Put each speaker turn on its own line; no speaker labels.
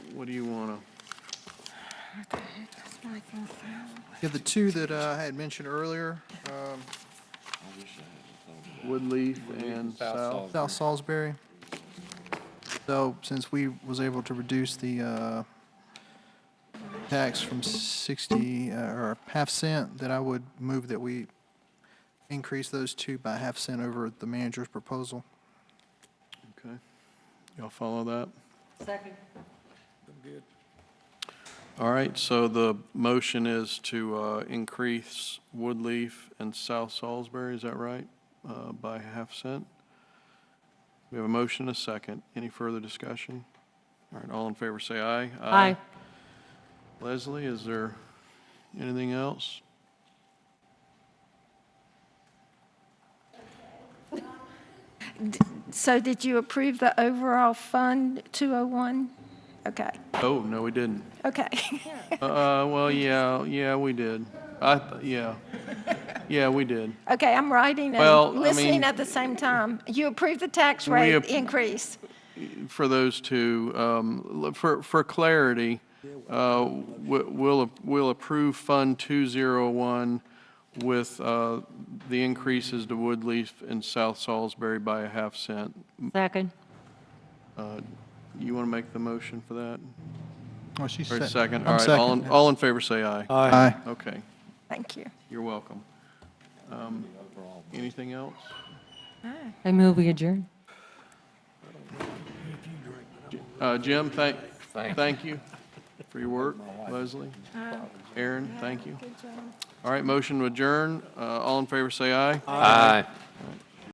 What do you want to?
Yeah, the two that uh, I had mentioned earlier, um,
Woodleaf and South.
uh, South Salisbury. So since we was able to reduce the uh, tax from 60, uh, or half cent, that I would move that we increase those two by half cent over the manager's proposal.
Okay. Y'all follow that?
Second.
All right, so the motion is to uh, increase Woodleaf and South Salisbury, is that right? Uh, By half cent? We have a motion, and a second. Any further discussion? All right, all in favor, say aye.
Aye.
Leslie, is there anything else?
So did you approve the overall fund 201? Okay,
Oh, no, we didn't.
okay.
Uh, well, yeah, yeah, we did. I, th- yeah. Yeah, we did.
Okay, I'm writing
Well, I
and
mean-
listening at the same time. You approved the tax
We
rate
ap-
increase.
for those two, um, l- for, for clarity, uh, we- we'll, we'll approve Fund 201 with uh, the increases to Woodleaf and South Salisbury by a half cent.
Second.
You want to make the motion for that?
Oh, she's
Or a
sec-
second?
I'm
All right, all in,
second.
all in favor, say aye.
Aye.
Okay,
Thank you.
you're welcome. Um, Anything else?
I move we adjourn.
Uh, Jim, thank, thank you for your work. Leslie, Aaron, thank you. All right, motion to adjourn. Uh, All in favor, say aye.
Aye.